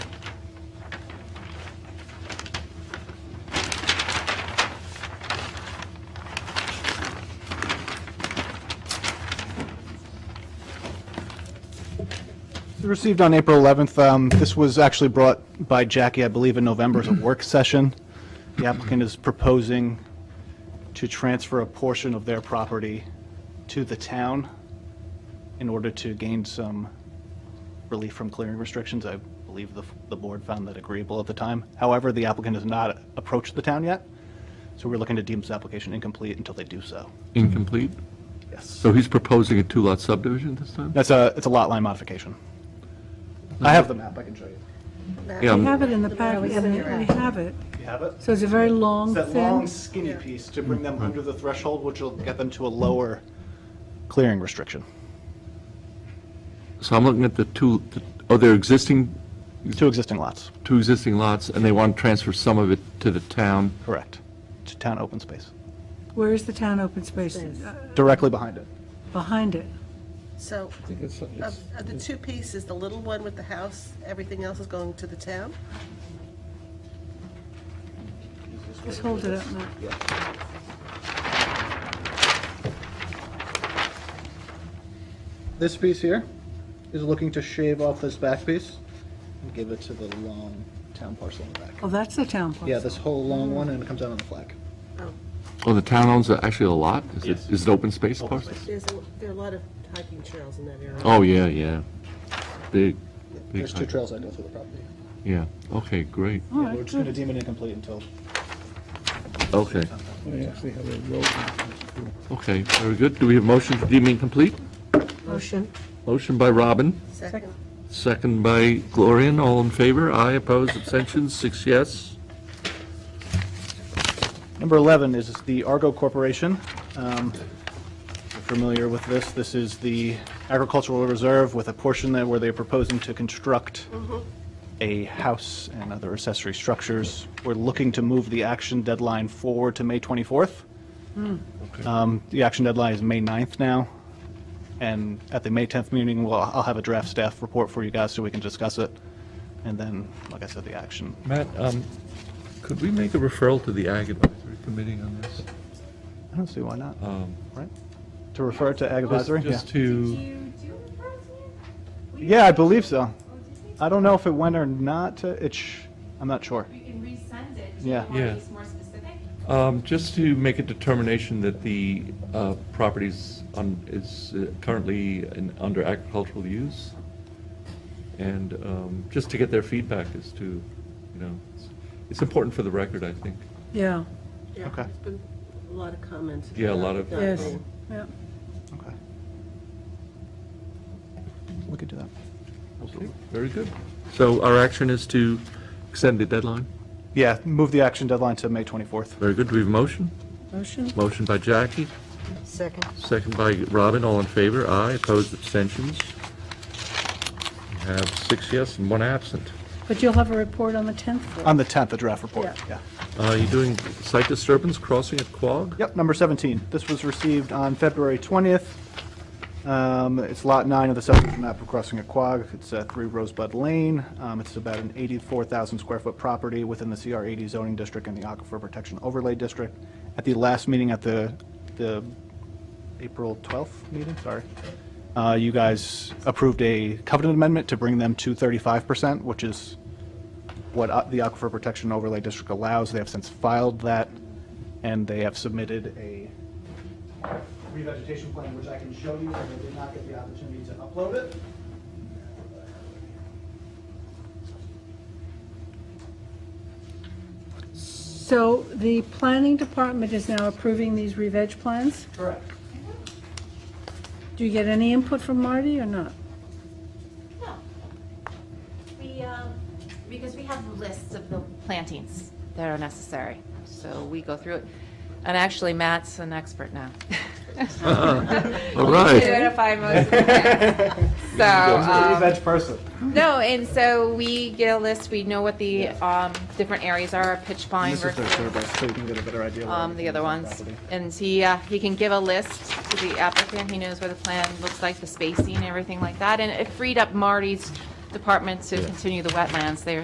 received on April 11th. Um, This was actually brought by Jackie, I believe, in November as a work session. The applicant is proposing to transfer a portion of their property to the town in order to gain some relief from clearing restrictions. I believe the, the board found that agreeable at the time. However, the applicant has not approached the town yet, so we're looking to deem this application incomplete until they do so. Incomplete? Yes. So he's proposing a two-lot subdivision this time? That's a, it's a lot line modification. I have the map, I can show you. Yeah, Um, We I'm- have it in the packet, we we have it. You have it? So it's a very long, It's that long thin, skinny piece to bring them under the threshold, which will get them to a lower clearing restriction. so I'm looking at the two, the- oh, they're existing, Two existing lots, two existing lots, and they want to transfer some of it to the town. correct, to town open space, where is the town open space? Uh, directly behind it. Behind it. So, of of the two pieces, the little one with the house, everything else is going to the town? Just hold it up, Matt. This piece here is looking to shave off this back piece and give it to the long town parcel in the back. Oh, that's the town Yeah, parcel. this whole Mm. long one, and it comes out on the flag. Oh, the town owns a- actually a lot? Is it, Yes. is it open space parcel? There's, a- there are a lot of hiking trails in that area. Oh, yeah, yeah. Big, big, There's two trails that go through the property. yeah, okay, great, All We're right, just going to good. deem it incomplete until okay. Okay, very good. Do we have motion to deem incomplete? Motion. Motion by Robin. Second, Second by Glorian. all in favor, aye, opposed, abstentions, six yes. Number 11 is the Argo Corporation. Um, You're familiar with this. This is the agricultural reserve with a portion there where they're proposing to construct a house and other accessory structures. We're looking to move the action deadline forward to May 24th. Um, The action deadline is May 9th now, and at the May 10th meeting, well, I'll have a draft staff report for you guys so we can discuss it, and then, like I said, the action. Matt, um, could we make a referral to the Ag Advisory Committee on this? I don't see why not, Um, right? To refer it to Ag just- Advisory? Uh, Yeah. Just to, You do refer to me? Yeah, I believe so. I don't know if it went or not. to- It's, sh- I'm not sure. We can resend it. Do you Yeah. want to Yeah. be more specific? um, just to make a determination that the uh, property's on, is uh, currently in, under agricultural use, and um, just to get their feedback as to, you know, it's- it's important for the record, I think. Yeah, yeah, Okay. there's been a lot of comments. Yeah, a lot of- about yes, that. yeah. Okay. We could do that. Okay, Very good. So our action is to extend the deadline? Yeah, move the action deadline to May 24th. Very good. Do we have a motion? Motion? Motion by Jackie, Second. second by Robin. All in favor? Aye. Opposed? Abstentions? We have six yes and one absent. But you'll have a report on the 10th for On the 10th, the draft report. Yeah. Are Uh, you doing site disturbance crossing at Quogue? Yep, number 17. This was received on February 20th. Um, It's lot nine of the subdivision map of Crossing at Quogue. It's at 3 Rosebud Lane. Um, It's about an 84,000 square foot property within the CR80 zoning district and the Aquifer Protection Overlay District. At the last meeting, at the, the April 12th meeting, sorry, uh, you guys approved a covenant amendment to bring them to 35%, which is what uh, the Aquifer Protection Overlay District allows. They have since filed that, and they have submitted a revegetation plan, which I can show you, but I did not get the opportunity to upload it. So the planning department is now approving these re-veg plans? Correct. Do you get any input from Marty or not? No. We, um, because we have lists of the plantings that are necessary, so we go through it. And actually, Matt's an expert now. All right. Identify most of the plants. So, um, veg person. No, and so we get a list, we know what the um, different areas are, pitch pine This is their versus survey, so you can get a better idea. of um, the other everything ones. is on the property. And he, uh, he can give a list to the applicant, he knows where the plan looks like, the spacing, everything like that. And it freed up Marty's department to continue the wetlands there.